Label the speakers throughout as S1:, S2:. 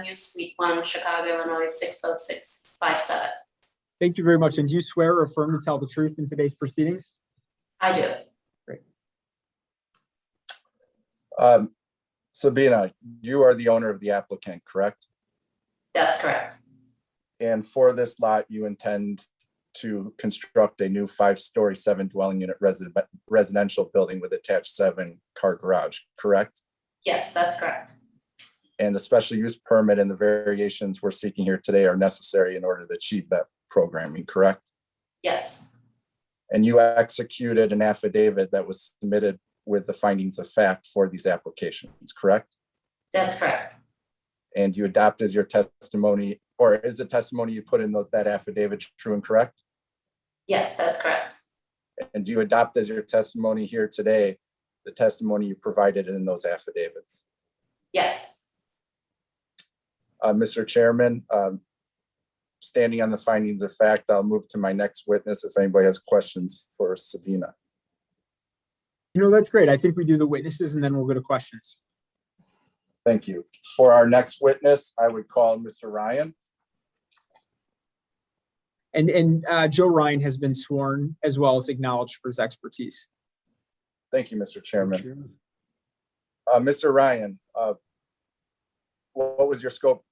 S1: Avenue, Suite One, Chicago, Illinois, six oh six five seven.
S2: Thank you very much. And do you swear or affirm to tell the truth in today's proceedings?
S1: I do.
S3: Um, Sabina, you are the owner of the applicant, correct?
S1: That's correct.
S3: And for this lot, you intend to construct a new five-story, seven-dwelling unit resident, residential building with attached seven-car garage, correct?
S1: Yes, that's correct.
S3: And the special use permit and the variations we're seeking here today are necessary in order to achieve that programming, correct?
S1: Yes,
S3: And you executed an affidavit that was submitted with the findings of fact for these applications, correct?
S1: that's correct.
S3: and you adopt as your testimony, or is the testimony you put in tho- that affidavit true and correct?
S1: Yes, that's correct.
S3: And do you adopt as your testimony here today, the testimony you provided in those affidavits?
S1: Yes,
S3: Uh, Mr. Chairman, um, standing on the findings of fact, I'll move to my next witness if anybody has questions for Sabina.
S2: You know, that's great. I think we do the witnesses and then we'll go to questions.
S3: Thank you. For our next witness, I would call Mr. Ryan.
S2: And, and uh, Joe Ryan has been sworn as well as acknowledged for his expertise.
S3: Thank you, Mr. Chairman. Uh, Mr. Ryan, uh, what was your scope,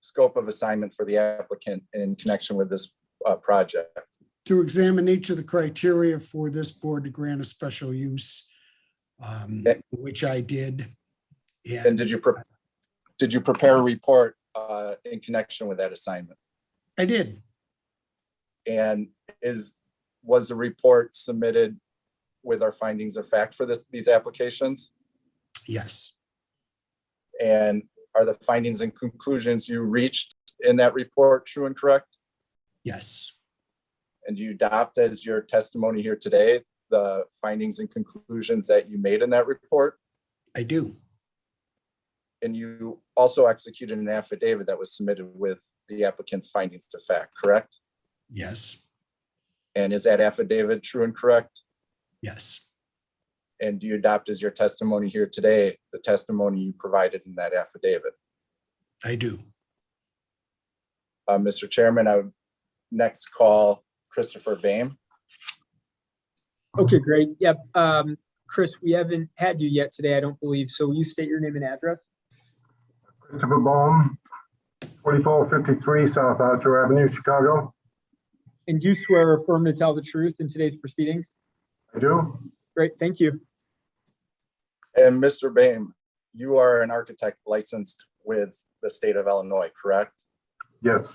S3: scope of assignment for the applicant in connection with this, uh, project?
S4: to examine each of the criteria for this board to grant a special use, um,
S3: Okay.
S4: which I did.
S3: And
S4: And
S3: did you, pre- did you prepare a report, uh, in connection with that assignment?
S4: I did.
S3: And is, was the report submitted with our findings of fact for this, these applications?
S4: Yes,
S3: And are the findings and conclusions you reached in that report true and correct?
S4: yes,
S3: and you adopt as your testimony here today, the findings and conclusions that you made in that report.
S4: I do.
S3: And you also executed an affidavit that was submitted with the applicant's findings to fact, correct?
S4: Yes,
S3: And is that affidavit true and correct?
S4: yes,
S3: And do you adopt as your testimony here today, the testimony you provided in that affidavit?
S4: I do.
S3: Uh, Mr. Chairman, I would next call Christopher Bame.
S2: Okay, great. Yep. Um, Chris, we haven't had you yet today, I don't believe. So will you state your name and address?
S5: Christopher Baum, 4453 South Archer Avenue, Chicago.
S2: And do you swear or affirm to tell the truth in today's proceedings?
S5: I do.
S2: Great, thank you.
S3: And Mr. Bame, you are an architect licensed with the state of Illinois, correct?
S5: Yes,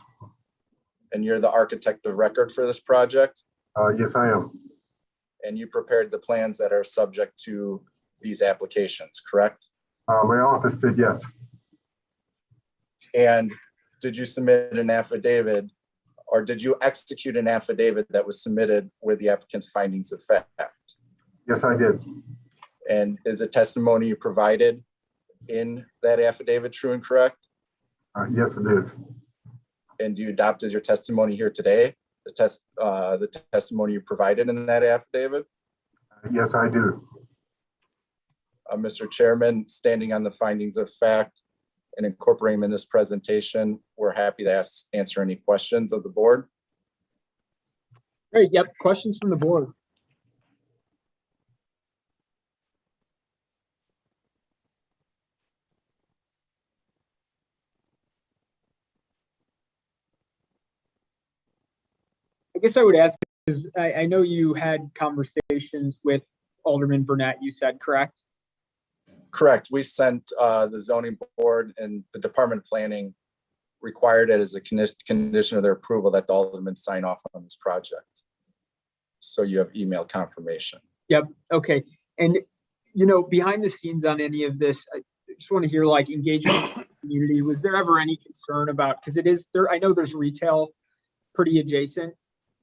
S3: And you're the architect of record for this project?
S5: uh, yes, I am.
S3: and you prepared the plans that are subject to these applications, correct?
S5: Uh, My office did, yes.
S3: And did you submit an affidavit or did you execute an affidavit that was submitted with the applicant's findings of fact?
S5: Yes, I did.
S3: And is the testimony you provided in that affidavit true and correct?
S5: Uh, Yes, it is.
S3: And do you adopt as your testimony here today, the test, uh, the testimony you provided in that affidavit?
S5: Yes, I do.
S3: Uh, Mr. Chairman, standing on the findings of fact and incorporating them in this presentation, we're happy to ask, answer any questions of the board.
S2: Great, yep. Questions from the board? I guess I would ask, because I, I know you had conversations with Alderman Burnett, you said, correct?
S3: Correct, we sent uh, the zoning board and the Department of Planning required it as a condi- condition of their approval that the Alderman sign off on this project. So you have email confirmation.
S2: Okay, and, you know, behind the scenes on any of this, I just want to hear like engagement with the community. Was there ever any concern about, because it is there, I know there's retail pretty adjacent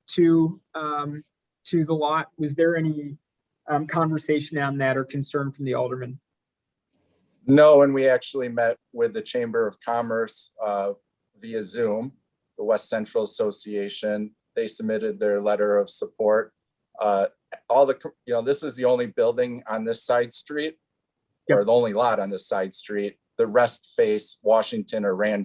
S2: to, um, to the lot. Was there any, um, conversation on that or concern from the alderman?
S3: No, and we actually met with the Chamber of Commerce uh, via Zoom, the West Central Association. They submitted their letter of support. Uh, All the, co- you know, this is the only building on this side street, or the only lot on this side street the rest face Washington or Randolph.